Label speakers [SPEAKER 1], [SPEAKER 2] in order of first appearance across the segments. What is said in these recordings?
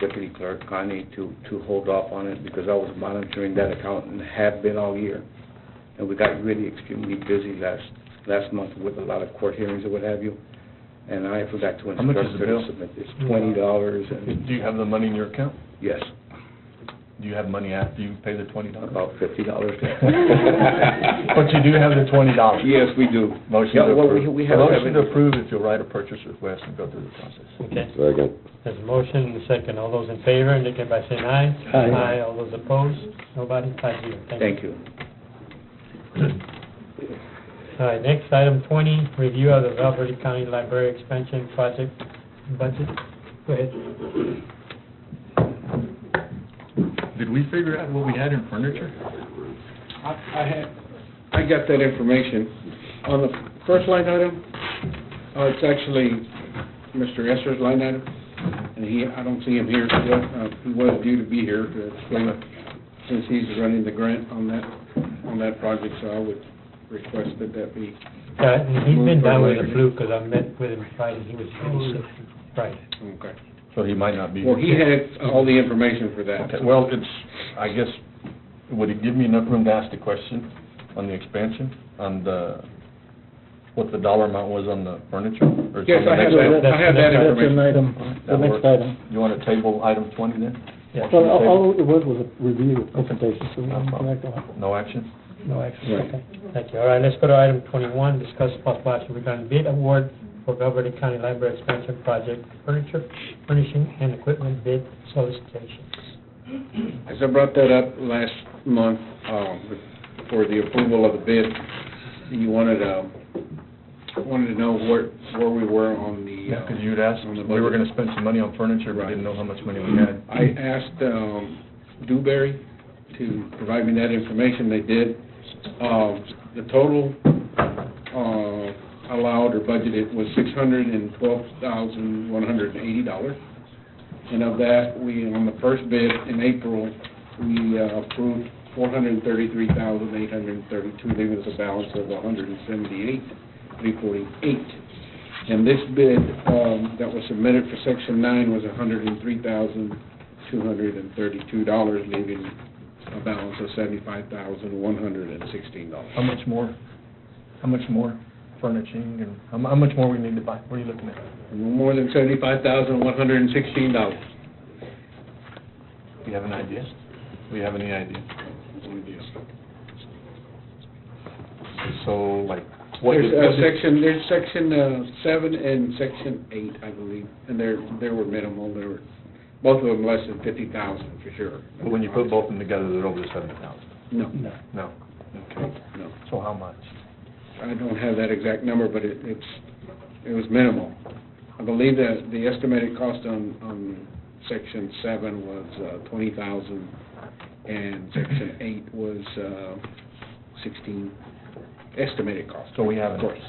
[SPEAKER 1] Deputy Clerk Connie to, to hold off on it because I was monitoring that account and have been all year. And we got really extremely busy last, last month with a lot of court hearings and what have you. And I forgot to
[SPEAKER 2] How much is
[SPEAKER 1] instruct her to
[SPEAKER 2] the bill?
[SPEAKER 1] submit this. Twenty dollars and,
[SPEAKER 2] Do you have the money in your account?
[SPEAKER 1] yes,
[SPEAKER 2] Do you have money after you pay the twenty dollars?
[SPEAKER 1] about fifty dollars.
[SPEAKER 2] But you do have the twenty dollars?
[SPEAKER 1] Yes, we do.
[SPEAKER 2] Motion
[SPEAKER 1] Yeah,
[SPEAKER 2] to
[SPEAKER 1] well,
[SPEAKER 2] approve.
[SPEAKER 1] we- we have-
[SPEAKER 2] Motion to approve if you'll write a purchase request and go through the process.
[SPEAKER 3] Okay,
[SPEAKER 4] Second.
[SPEAKER 3] there's a motion and a second. All those in favor, indicate by saying aye.
[SPEAKER 2] Aye.
[SPEAKER 3] all those opposed, nobody, five zero.
[SPEAKER 1] Thank you.
[SPEAKER 3] All right, next, item twenty, review of the Valverde County Library Expansion Project budget. Go ahead.
[SPEAKER 2] Did we figure out what we had in furniture?
[SPEAKER 1] I I had, I got that information. On the first line item, uh, it's actually Mr. Esser's line item, and he, I don't see him here today. Uh, He was due to be here to explain it, since he's running the grant on that, on that project, so I would request that that be.
[SPEAKER 3] Yeah, Uh, and he's been down with the flu, because I met with him Friday, he was really sick. Right.
[SPEAKER 1] Okay.
[SPEAKER 2] So he might not be.
[SPEAKER 1] Well, he had all the information for that.
[SPEAKER 2] Okay, well, it's, I guess, would it give me enough room to ask the question on the expansion, on the, what the dollar amount was on the furniture? Or is it
[SPEAKER 1] Yes, I have
[SPEAKER 2] on the next
[SPEAKER 1] that,
[SPEAKER 2] item?
[SPEAKER 1] I have that information.
[SPEAKER 5] That's an item, the
[SPEAKER 2] That
[SPEAKER 5] next
[SPEAKER 2] works.
[SPEAKER 5] item.
[SPEAKER 2] You want to table item twenty then?
[SPEAKER 3] Yeah.
[SPEAKER 5] Well, all- all it was was a review of presentation, so we
[SPEAKER 2] No
[SPEAKER 5] don't
[SPEAKER 2] problem.
[SPEAKER 5] connect on.
[SPEAKER 2] No action?
[SPEAKER 3] No action,
[SPEAKER 1] Right.
[SPEAKER 3] okay. Thank you. All right, let's go to item twenty-one, discuss possible action regarding bid award for Valverde County Library Expansion Project Furniture, Furnishing, and Equipment Bid Solicitation.
[SPEAKER 1] As I brought that up last month, um, for the approval of the bid, you wanted, um, wanted to know where, where we were on the.
[SPEAKER 2] Yeah,
[SPEAKER 1] uh,
[SPEAKER 2] because you'd asked,
[SPEAKER 1] on the
[SPEAKER 2] we were
[SPEAKER 1] budget.
[SPEAKER 2] going to spend some money on furniture, but
[SPEAKER 1] Right.
[SPEAKER 2] didn't know how much money we had.
[SPEAKER 1] I asked um, Dewberry to provide me that information, they did. Um, The total uh, allowed or budgeted was $612,180. And of that, we, on the first bid in April, we uh, approved $433,832, leaving us a balance of $178,348. And this bid um, that was submitted for Section 9 was $103,232, leaving a balance of $75,116.
[SPEAKER 2] How much more, how much more furnishing and how mu- how much more we need to buy? What are you looking at?
[SPEAKER 1] More than $75,116.
[SPEAKER 2] Do you have an idea? Do you have any idea? So like, what
[SPEAKER 1] There's
[SPEAKER 2] did,
[SPEAKER 1] uh,
[SPEAKER 2] what did,
[SPEAKER 1] section, there's section uh, seven and section eight, I believe, and they're, they were minimal, they were, both of them less than fifty thousand for sure.
[SPEAKER 2] but when you put both of them together, they're over the seventy thousand?
[SPEAKER 1] No,
[SPEAKER 2] No. Okay.
[SPEAKER 1] no,
[SPEAKER 2] So how much?
[SPEAKER 1] I don't have that exact number, but it, it's, it was minimal. I believe that the estimated cost on, on section seven was uh, twenty thousand, and section eight was uh, sixteen, estimated cost.
[SPEAKER 2] So we haven't.
[SPEAKER 1] Of course.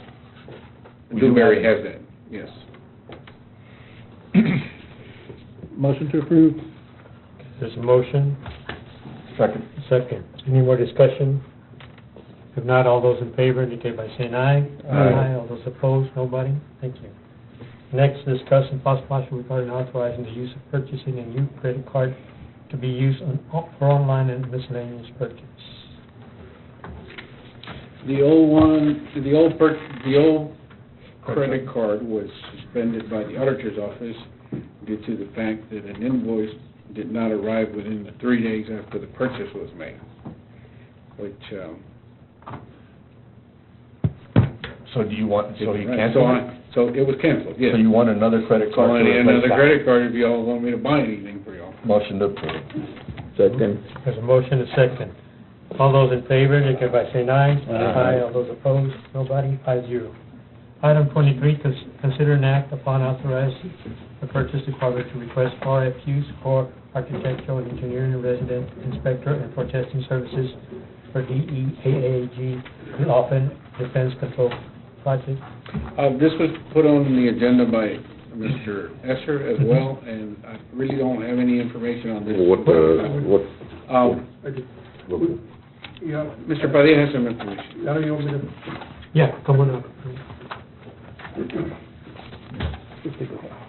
[SPEAKER 2] We do have
[SPEAKER 1] Dewberry
[SPEAKER 2] it.
[SPEAKER 1] has that, yes.
[SPEAKER 5] Motion to approve?
[SPEAKER 3] There's a motion,
[SPEAKER 2] Second.
[SPEAKER 3] second. Any more discussion? If not, all those in favor indicate by saying aye.
[SPEAKER 2] Aye.
[SPEAKER 3] All those opposed, nobody. Thank you. Next, discuss and possible action regarding authorizing the use of purchasing a new credit card to be used on, for online and miscellaneous purchase.
[SPEAKER 1] The old one, the old per, the old credit card was suspended by the auditor's office due to the fact that an invoice did not arrive within the three days after the purchase was made, which, um...
[SPEAKER 2] So do you want, so you
[SPEAKER 1] right,
[SPEAKER 2] cancel it?
[SPEAKER 1] I- So it was canceled, yes.
[SPEAKER 2] So you want another credit
[SPEAKER 1] So I
[SPEAKER 2] card to
[SPEAKER 1] need
[SPEAKER 2] replace
[SPEAKER 1] another
[SPEAKER 2] that?
[SPEAKER 1] credit card if y'all want me to buy anything for y'all.
[SPEAKER 2] Motion to approve.
[SPEAKER 4] Second.
[SPEAKER 3] There's a motion, a second. All those in favor indicate by saying aye.
[SPEAKER 2] Aye.
[SPEAKER 3] All those opposed, nobody. Five zero. Item twenty-three, cons- consider an act upon authorizing the purchase department to request RFQs for architectural and engineering resident inspector and for testing services for E DEAAG, Laughlin Defense Control Project.
[SPEAKER 1] Uh, This was put on the agenda by Mr. Esser
[SPEAKER 2] Mm-hmm.
[SPEAKER 1] as well, and I really don't have any information on this.
[SPEAKER 4] What, uh, what?
[SPEAKER 1] Um,
[SPEAKER 4] what-
[SPEAKER 6] Yeah,
[SPEAKER 1] Mr. Padilla has some information.
[SPEAKER 6] now you want me to
[SPEAKER 3] Yeah, come on up.